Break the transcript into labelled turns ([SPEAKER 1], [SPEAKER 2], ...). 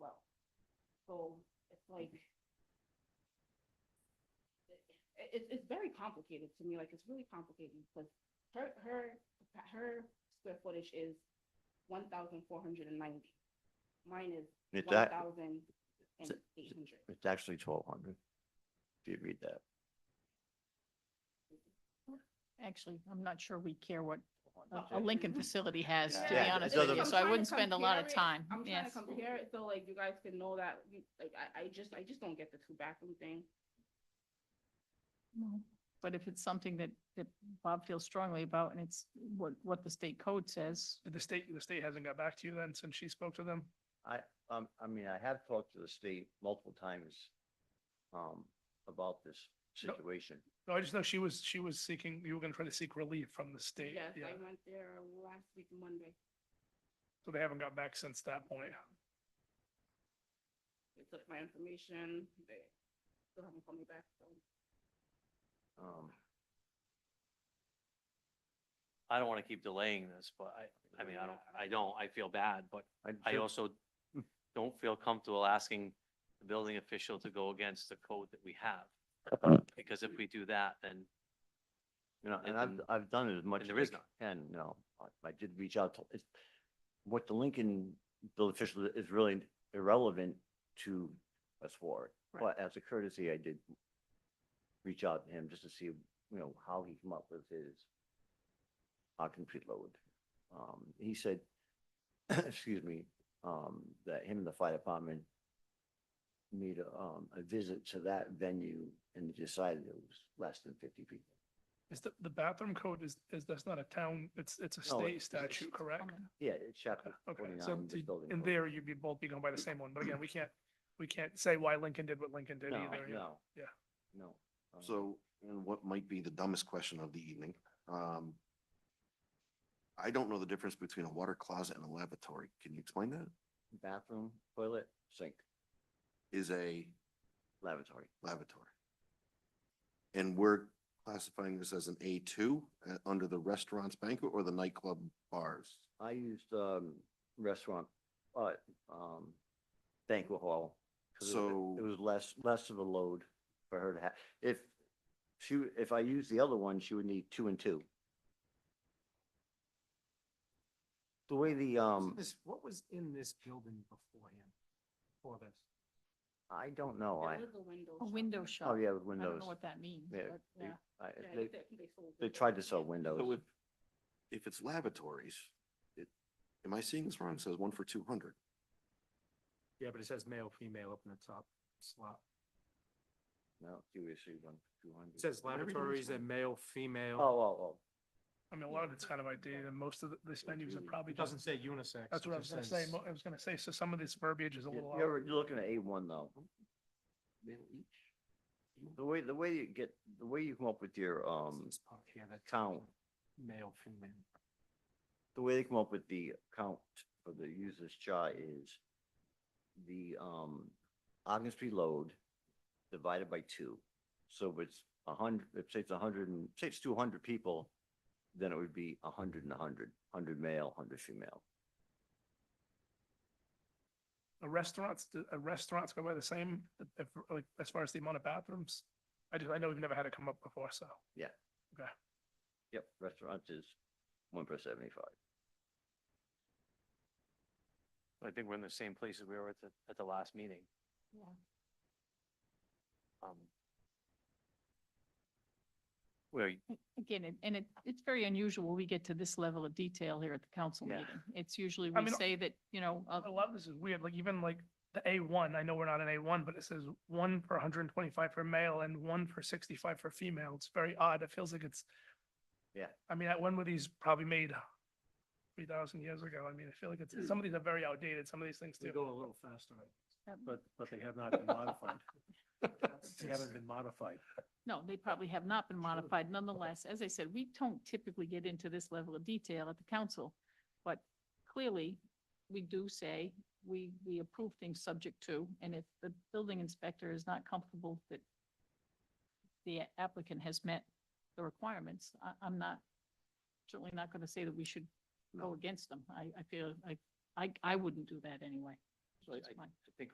[SPEAKER 1] like. It, it's- it's very complicated to me, like, it's really complicated, because her, her, her square footage is one thousand four hundred and ninety. Mine is
[SPEAKER 2] It's
[SPEAKER 1] one
[SPEAKER 2] that,
[SPEAKER 1] thousand and eight hundred.
[SPEAKER 2] it's actually twelve hundred. If you read that,
[SPEAKER 3] Actually, I'm not sure we care what a- a
[SPEAKER 2] Okay.
[SPEAKER 3] Lincoln facility has, to be
[SPEAKER 2] Yeah, it
[SPEAKER 3] honest with
[SPEAKER 2] doesn't-
[SPEAKER 3] you, so I wouldn't spend a lot of time,
[SPEAKER 1] I'm trying
[SPEAKER 3] yes.
[SPEAKER 1] to compare it, so like, you guys can know that, you- like, I, I just, I just don't get the two bathroom thing.
[SPEAKER 3] Well, But if it's something that, that Bob feels strongly about and it's what, what the state code says,
[SPEAKER 4] The state, the state hasn't got back to you then since she spoke to them?
[SPEAKER 2] I, um, I mean, I have talked to the state multiple times, um, about this
[SPEAKER 4] No.
[SPEAKER 2] situation.
[SPEAKER 4] No, I just know she was, she was seeking, you were gonna try to seek relief from the state.
[SPEAKER 1] Yes,
[SPEAKER 4] Yeah.
[SPEAKER 1] I went there last week Monday,
[SPEAKER 4] So they haven't got back since that point.
[SPEAKER 1] they took my information, they still haven't called me back, so.
[SPEAKER 2] Um,
[SPEAKER 5] I don't want to keep delaying this, but I, I mean, I don't, I don't, I feel bad, but I
[SPEAKER 2] feel-
[SPEAKER 5] also don't feel comfortable asking the building official to go against the code that we have. Because if we do that, then
[SPEAKER 2] You know, and
[SPEAKER 5] and
[SPEAKER 2] I've,
[SPEAKER 5] then-
[SPEAKER 2] I've done it as much
[SPEAKER 5] and
[SPEAKER 2] as
[SPEAKER 5] there
[SPEAKER 2] I
[SPEAKER 5] is none.
[SPEAKER 2] can, you know, I- I did reach out to, it's, what the Lincoln bill official is really irrelevant to us for. it.
[SPEAKER 3] Right.
[SPEAKER 2] But as a courtesy, I did reach out to him just to see, you know, how he came up with his occupancy load. Um, he said, excuse me, um, that him and the fire department made a, um, a visit to that venue and decided it was less than fifty people.
[SPEAKER 4] Is the, the bathroom code is, is, that's not a town, it's, it's a
[SPEAKER 2] No,
[SPEAKER 4] state
[SPEAKER 2] it's- it's-
[SPEAKER 4] statute, correct?
[SPEAKER 2] Yeah, it's chapter
[SPEAKER 4] Uh, Okay, so
[SPEAKER 2] forty-nine, the
[SPEAKER 4] the-
[SPEAKER 2] building.
[SPEAKER 4] in
[SPEAKER 2] code.
[SPEAKER 4] there, you'd be both be going by the same one, but again, we can't, we can't say why Lincoln did what Lincoln did
[SPEAKER 2] No,
[SPEAKER 4] either. you know?
[SPEAKER 2] no.
[SPEAKER 4] Yeah.
[SPEAKER 2] No. um,
[SPEAKER 6] So, and what might be the dumbest question of the evening, um, I don't know the difference between a water closet and a lavatory. Can you explain that?
[SPEAKER 2] Bathroom, toilet, sink,
[SPEAKER 6] Is a
[SPEAKER 2] lavatory.
[SPEAKER 6] lavatory. And we're classifying this as an A two, uh, under the restaurants banquet or the nightclub bars?
[SPEAKER 2] I used, um, restaurant, but, um, banquet hall. 'cause it-
[SPEAKER 6] So-
[SPEAKER 2] It was less, less of a load for her to have. If she, if I used the other one, she would need two and two. The way the, um,
[SPEAKER 7] This, what was in this building beforehand for this?
[SPEAKER 2] I don't know, I,
[SPEAKER 1] It was a window.
[SPEAKER 3] a
[SPEAKER 1] shop.
[SPEAKER 3] window shop.
[SPEAKER 2] oh yeah, with
[SPEAKER 3] I don't
[SPEAKER 2] windows.
[SPEAKER 3] know what that means,
[SPEAKER 2] Yeah,
[SPEAKER 3] but
[SPEAKER 2] they-
[SPEAKER 3] yeah.
[SPEAKER 2] I-
[SPEAKER 1] Yeah,
[SPEAKER 2] They,
[SPEAKER 1] they- they sold
[SPEAKER 2] they
[SPEAKER 1] it.
[SPEAKER 2] tried to sell
[SPEAKER 6] So
[SPEAKER 2] windows.
[SPEAKER 6] if, if it's lavatories, it, am I seeing this wrong? It says one for two hundred.
[SPEAKER 7] Yeah, but it says male, female up in the top slot.
[SPEAKER 2] No, you issued one, two hundred.
[SPEAKER 7] It says laboratories and male,
[SPEAKER 2] Oh,
[SPEAKER 7] female.
[SPEAKER 2] oh,
[SPEAKER 4] I mean, a lot of it's kind of outdated and most of the- this venues are probably
[SPEAKER 7] It doesn't
[SPEAKER 4] just,
[SPEAKER 7] say unisex.
[SPEAKER 4] that's
[SPEAKER 7] it
[SPEAKER 4] what I was
[SPEAKER 7] just
[SPEAKER 4] gonna say.
[SPEAKER 7] says-
[SPEAKER 4] Mo- I was gonna say, so some of this verbiage is a
[SPEAKER 2] oh.
[SPEAKER 4] little. out-
[SPEAKER 2] You're, you're looking at A one though. The way, the way you get, the way you come up with your, um,
[SPEAKER 7] This part here, that-
[SPEAKER 2] count,
[SPEAKER 7] Male, female.
[SPEAKER 2] the way they come up with the count for the user's chart is the, um, occupancy load divided by two. So if it's a hundred, if say it's a hundred and, say it's two hundred people, then it would be a hundred and a hundred, hundred male, hundred female.
[SPEAKER 4] A restaurants, do- a restaurants go by the same, if, like, as far as the amount of bathrooms? I just, I know we've never had it come up before, so.
[SPEAKER 2] Yep, restaurants is one per seventy-five.
[SPEAKER 5] I think we're in the same place as we were at the, at the last meeting.
[SPEAKER 3] Yeah.
[SPEAKER 5] Um, Where, you-
[SPEAKER 3] Again, it- and it, it's very unusual. We get to this level of detail here at the council
[SPEAKER 2] Yeah.
[SPEAKER 3] meeting. It's usually
[SPEAKER 4] I
[SPEAKER 3] we
[SPEAKER 4] mean,
[SPEAKER 3] say that, you know, uh,
[SPEAKER 4] A lot of this is weird, like even like the A one, I know we're not an A one, but it says one for hundred and twenty-five for male and one for sixty-five for female. It's very odd. It feels like it's.
[SPEAKER 2] Yeah.
[SPEAKER 4] I mean, when were these probably made? Three thousand years ago. I mean, I feel like it's, some of these are very outdated, some of these things
[SPEAKER 7] They
[SPEAKER 4] too.
[SPEAKER 7] go a little faster,
[SPEAKER 3] um,
[SPEAKER 1] oh.
[SPEAKER 7] but, but they have not been modified. They haven't been modified.
[SPEAKER 3] no, they probably have not been modified. Nonetheless, as I said, we don't typically get into this level of detail at the council. But clearly, we do say we, we approve things subject to, and if the building inspector is not comfortable that the applicant has met the requirements, I, I'm not, certainly not going to say that we should go against them. I, I feel, I, I, I wouldn't do that anyway.
[SPEAKER 5] So I-
[SPEAKER 3] That's my-
[SPEAKER 5] I think